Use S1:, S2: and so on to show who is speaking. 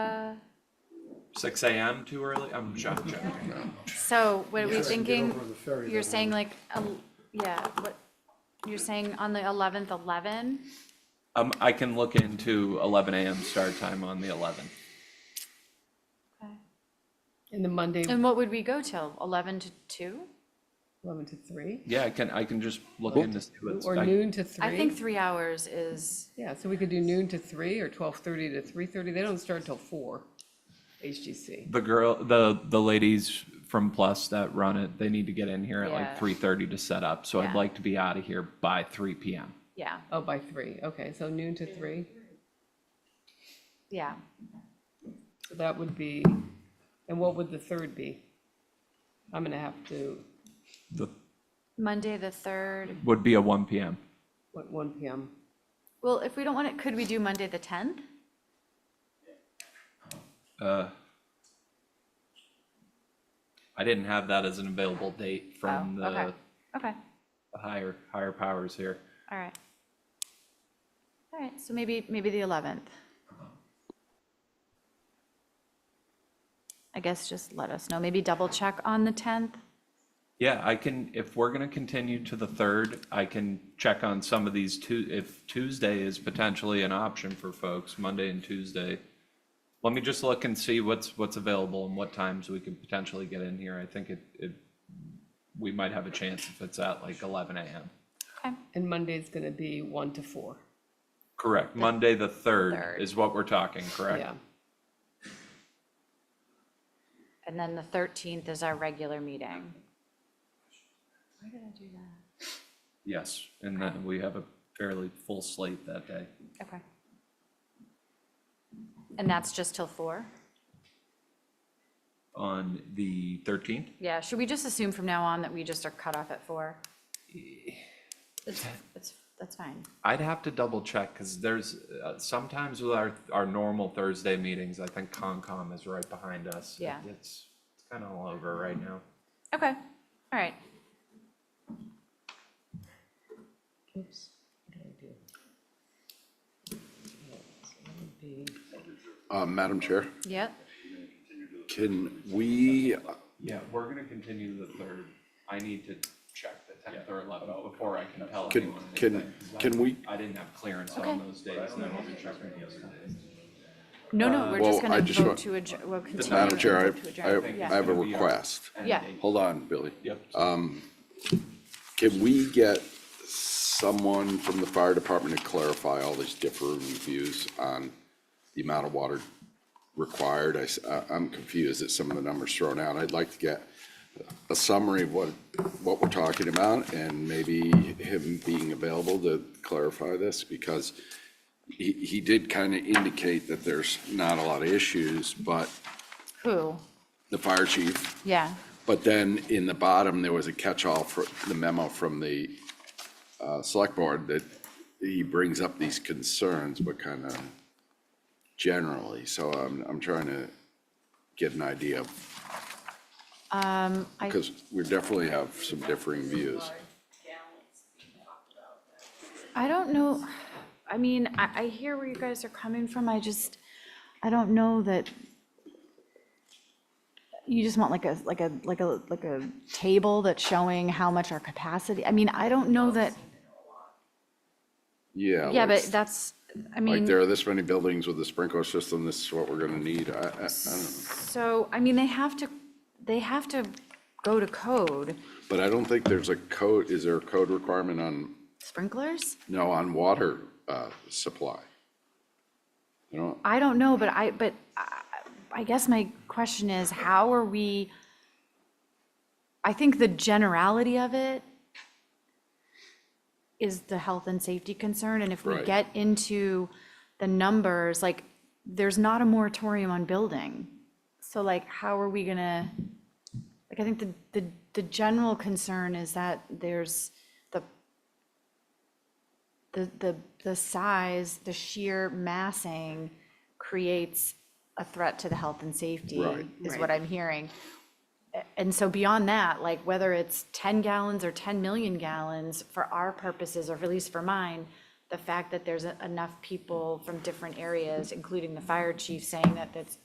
S1: Six AM too early? I'm shocked, shocked.
S2: So what are we
S3: Just to Mm-hmm. get
S2: thinking?
S3: over the ferry
S2: You're
S3: that
S2: saying
S3: way.
S2: like, el- yeah, what, you're saying on the eleventh, eleven?
S1: Um, I can look into eleven AM start time on the eleventh.
S4: And the Monday,
S2: And what would we go till? Eleven to two?
S4: eleven to three,
S1: Yeah, I can, I can just look into see what's.
S4: or
S1: I-
S4: noon to three?
S2: I think three hours is,
S4: Yeah, so we could do noon to three, or twelve-thirty to three-thirty, they don't start till four, HGC.
S1: The girl, the, the ladies from Plus that run it, they need to get in here at
S2: Yeah.
S1: like three thirty to set up, so I'd
S2: Yeah.
S1: like to be out of here by three PM.
S2: yeah,
S4: Oh, by three, okay, so noon to three,
S2: yeah.
S4: so that would be, and what would the third be? I'm gonna have to,
S1: The,
S2: Monday, the third.
S1: would be a one PM.
S4: what, one PM?
S2: Well, if we don't want it, could we do Monday, the tenth?
S1: Uh, I didn't have that as an available date from
S2: Oh, okay.
S1: the
S2: Okay,
S1: the higher, higher powers here.
S2: all right. All right, so maybe, maybe the eleventh. I guess just let us know. Maybe double check on the tenth.
S1: Yeah, I can, if we're gonna continue to the third, I can check on some of these two, if Tuesday is potentially an option for folks, Monday and Tuesday. Let me just look and see what's, what's available and what times we can potentially get in here. I think it, it, we might have a chance if it's at like eleven AM.
S2: Okay,
S4: And Monday's gonna be one to four,
S1: Correct, Monday the third
S2: Third.
S1: is what we're talking, correct?
S4: yeah,
S2: and then the thirteenth is our regular meeting. Why did I do that?
S1: Yes, and then we have a fairly full slate that day.
S2: Okay. And that's just till four?
S1: On the thirteenth?
S2: Yeah, should we just assume from now on that we just are cut off at four? It's, it's, that's fine.
S1: I'd have to double check because there's uh, sometimes with our our normal Thursday meetings, I think Concom is right behind us. It-
S2: Yeah.
S1: It's it's kind of all over right now.
S2: Okay, all right.
S4: Oops, what did I do? Yeah, so that would be-
S5: Uh, Madam Chair,
S2: Yep,
S5: can we,
S1: Yeah, we're gonna continue the third. I need to check the tenth or eleventh before I can tell
S5: can, can, can we,
S1: I didn't have clearance
S2: Okay.
S1: on those days and I will be checking the other days.
S2: no, no, we're
S5: Well,
S2: Uh, just
S5: I
S2: gonna
S5: just
S2: vote
S5: want-
S2: to adjourn, we'll continue.
S5: Madam
S2: and
S5: Chair,
S2: vote to
S5: I, I,
S2: adjourn.
S5: I
S2: Yeah.
S5: have a request.
S2: Yeah,
S5: Hold on, Billy.
S1: Yep.
S5: Can we get someone from the fire department to clarify all these differing views on the amount of water required? I, am confused at some of the numbers thrown out. I'd like to get a summary of what, what we're talking about and maybe him being available to clarify this because he, he did kind of indicate that there's not a lot of issues, but
S2: who,
S5: the fire chief
S2: yeah,
S5: but then in the bottom, there was a catch-all for the memo from the uh, select board that he brings up these concerns, but kind of generally. So I'm, I'm trying to get an idea,
S2: um, I,
S5: because we definitely have some differing views.
S2: I don't know, I mean, I, I hear where you guys are coming from, I just, I don't know that. You just want like a, like a, like a, like a table that's showing how much our capacity, I mean, I don't know that.
S5: Yeah.
S2: Yeah, but
S5: like-
S2: that's, I
S5: Like,
S2: mean,
S5: there are this many buildings with a sprinkler system, this is what we're gonna need. I, I, I don't know.
S2: so, I mean, they have to, they have to go to code.
S5: But I don't think there's a code, is there a code requirement on,
S2: Sprinklers?
S5: no, on water uh, supply? You know,
S2: I don't know, but I, but I- I guess my question is, how are we? I think the generality of it is the health and safety concern, and if we
S5: Right.
S2: get into the numbers, like, there's not a moratorium on building. So like, how are we gonna, like, I think the, the, the general concern is that there's the the, the, the size, the sheer massing creates a threat to the health and safety,
S5: Right.
S2: is what I'm hearing. A- And so beyond that, like whether it's ten gallons or ten million gallons, for our purposes, or at least for mine, the fact that there's e- enough people from different areas, including the fire chief, saying that that's